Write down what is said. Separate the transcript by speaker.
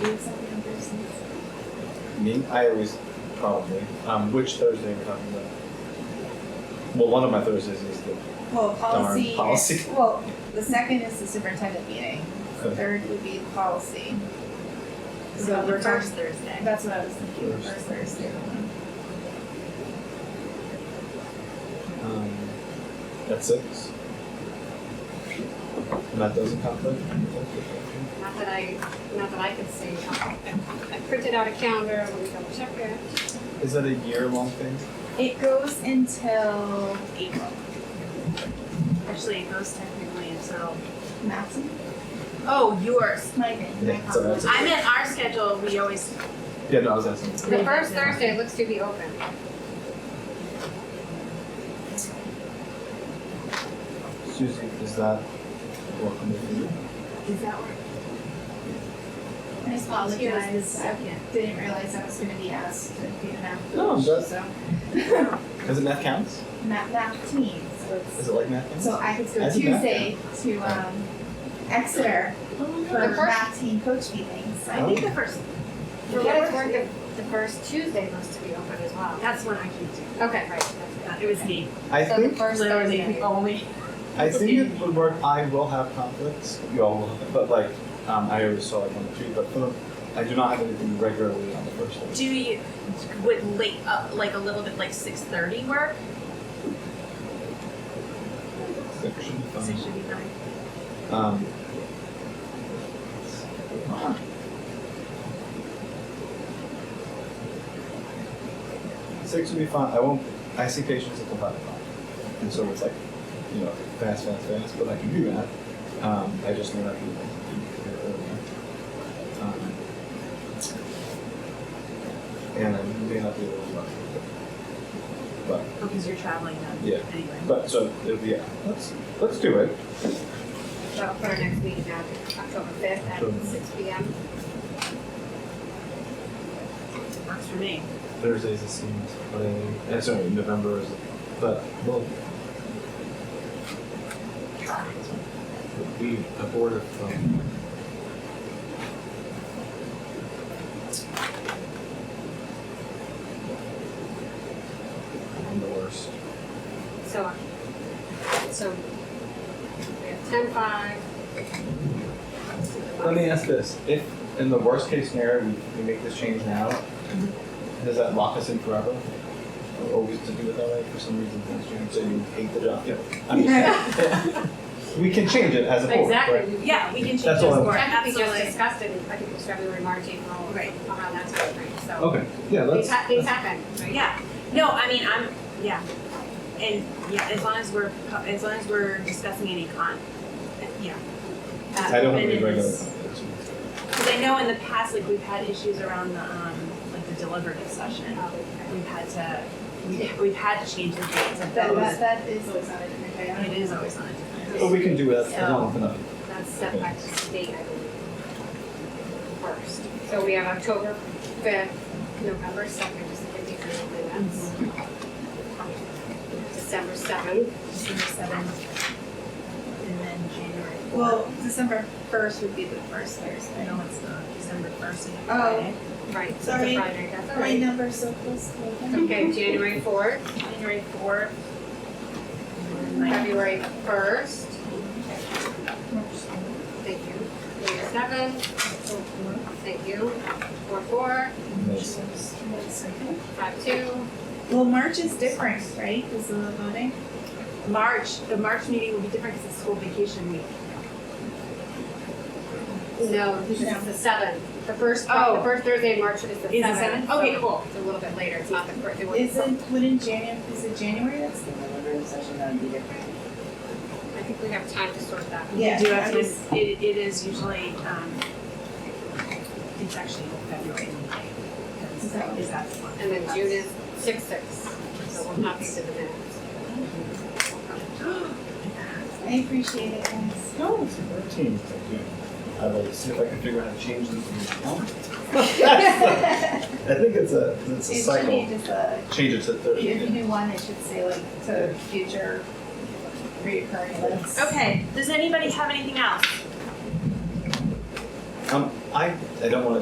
Speaker 1: doing something on Thursdays?
Speaker 2: Me? I always probably. Um, which Thursday are we talking about? Well, one of my Thursdays is the.
Speaker 1: Well, policy.
Speaker 2: policy.
Speaker 1: Well, the second is the superintendent meeting. The Third would be policy. So
Speaker 3: the
Speaker 1: we're
Speaker 3: first
Speaker 1: first,
Speaker 3: Thursday.
Speaker 1: that's what I was thinking, the
Speaker 2: First.
Speaker 1: first Thursday.
Speaker 2: Um, at six. And that doesn't conflict.
Speaker 3: Not that I, not that I could see. I I printed out a calendar, let me double check it.
Speaker 2: Is that a year-long thing?
Speaker 1: It goes until April,
Speaker 3: Actually, it goes technically until,
Speaker 1: maximum,
Speaker 3: oh, yours.
Speaker 1: my thing, my
Speaker 2: Yeah, so that's-
Speaker 1: policy.
Speaker 3: I meant our schedule, we always,
Speaker 2: Yeah, no, I was asking.
Speaker 3: the first Thursday looks to be open.
Speaker 2: Susie, is that working with you?
Speaker 3: Is that where?
Speaker 1: I apologize, I
Speaker 3: Second.
Speaker 1: didn't realize I was gonna be asked to be the math
Speaker 2: No,
Speaker 1: coach,
Speaker 2: that's-
Speaker 1: so.
Speaker 2: Is it math counts?
Speaker 1: Math, math team, so it's,
Speaker 2: Is it like math counts?
Speaker 1: so I could go
Speaker 2: That's a math
Speaker 1: Tuesday to, um, Exeter for
Speaker 3: The first-
Speaker 1: math team coach meetings.
Speaker 2: Oh.
Speaker 3: I think the first, for
Speaker 1: The
Speaker 3: what it's
Speaker 1: first-
Speaker 3: worth, the, the first Tuesday looks to be open as well. That's when I can do. Okay, right. It was me.
Speaker 2: I
Speaker 3: So the
Speaker 2: think
Speaker 3: first Thursday.
Speaker 4: only.
Speaker 2: I think it would work. I will have conflicts. You all will, have, but like um, I always saw like on the tree. But for the, I do not have anything regularly on the first one.
Speaker 4: Do you, would late, uh, like a little bit like six thirty work?
Speaker 2: That should be
Speaker 4: Six
Speaker 2: fun.
Speaker 4: should be fine.
Speaker 2: Um, six would be fine. I won't. I see patients at the five o'clock, and so it's like you know fast, fast, fast. But I can do that. Um, I just know that people can do it earlier. Um, and I may not be able to. work. But
Speaker 4: Because you're traveling then.
Speaker 2: Yeah.
Speaker 4: Anyway.
Speaker 2: but so it'll be yeah. Let's let's do it.
Speaker 3: So for our next meeting, now, October fifth
Speaker 2: Sure.
Speaker 3: at six P M.
Speaker 4: Works for me.
Speaker 2: Thursdays it seems, but I, uh, sorry, November is, but well. We a board of um, I'm the worst.
Speaker 3: So, so we have ten five.
Speaker 2: Let me ask this: If in the worst case scenario we, we make this change now, does that lock us in forever? Or always to do it that way for some reason things change, so you hate the job. Yeah. I'm just- we can change it as a board. right?
Speaker 3: Exactly.
Speaker 4: Yeah, we can change
Speaker 2: That's
Speaker 4: this
Speaker 2: all I-
Speaker 4: for it,
Speaker 3: Technically just
Speaker 4: absolutely.
Speaker 3: discussed it, I think it was February, March, April,
Speaker 4: Right.
Speaker 3: around that time frame, so.
Speaker 2: Okay. Yeah.
Speaker 3: Things
Speaker 2: Let's.
Speaker 3: ha- things happen, right?
Speaker 4: Yeah, no, I mean, I'm, yeah. And, yeah, as long as we're, co- as long as we're discussing any con, yeah. Uh,
Speaker 2: I don't have
Speaker 4: and
Speaker 2: any
Speaker 4: it's-
Speaker 2: regular.
Speaker 4: Because I know in the past, like, we've had issues around the, um, like the deliberative session. We've had to, we've, we've had to change the dates of
Speaker 1: That, that,
Speaker 4: those.
Speaker 1: that is always on a different day. I don't
Speaker 4: It is always on a different
Speaker 2: But we can do it as long as enough.
Speaker 3: That's
Speaker 2: Okay.
Speaker 3: set back to state, I believe. First, so we have October fifth, November second, just to give you some minutes.
Speaker 4: Mm-hmm.
Speaker 3: December seventh,
Speaker 1: December seventh,
Speaker 4: And then January fourth.
Speaker 1: well, December first would be the first Thursday.
Speaker 4: No, it's not, December first is a
Speaker 1: Oh.
Speaker 4: Friday.
Speaker 3: right, it's a
Speaker 1: Sorry.
Speaker 3: Friday, that's all
Speaker 1: My
Speaker 3: right.
Speaker 1: number's so close to them.
Speaker 3: Okay, January fourth,
Speaker 1: January fourth,
Speaker 3: February first, thank you, January seventh, thank you, four four,
Speaker 2: Nice.
Speaker 3: five two,
Speaker 1: Well, March is different, right, because of the voting?
Speaker 4: March, the March meeting will be different because it's school vacation week.
Speaker 3: no, this is the seventh. The first, the
Speaker 4: Oh.
Speaker 3: first Thursday in March is the seventh.
Speaker 4: the seventh?
Speaker 3: so
Speaker 4: Okay, cool.
Speaker 3: It's a little bit later, it's not the first, it was, I
Speaker 1: Isn't, wouldn't January, is it January that's the deliberative session, that would be different?
Speaker 3: think we have time to sort that.
Speaker 4: We
Speaker 1: Yeah,
Speaker 4: do have
Speaker 1: I
Speaker 4: to,
Speaker 1: just-
Speaker 4: it, it is usually, um, it's actually February. Is
Speaker 1: that-
Speaker 4: Is that the one?
Speaker 3: And then June is six six, so we'll not be to the minutes.
Speaker 1: I appreciate it, guys.
Speaker 2: No, it's thirteen. I will see if I can figure out how to change this. I think it's a it's a
Speaker 1: It should be
Speaker 2: cycle.
Speaker 1: just a,
Speaker 2: Change it to
Speaker 1: if you
Speaker 2: thirteen.
Speaker 1: do one, it should say like to future reoccurring events.
Speaker 4: Okay, does anybody have anything else?
Speaker 2: Um, I I don't want to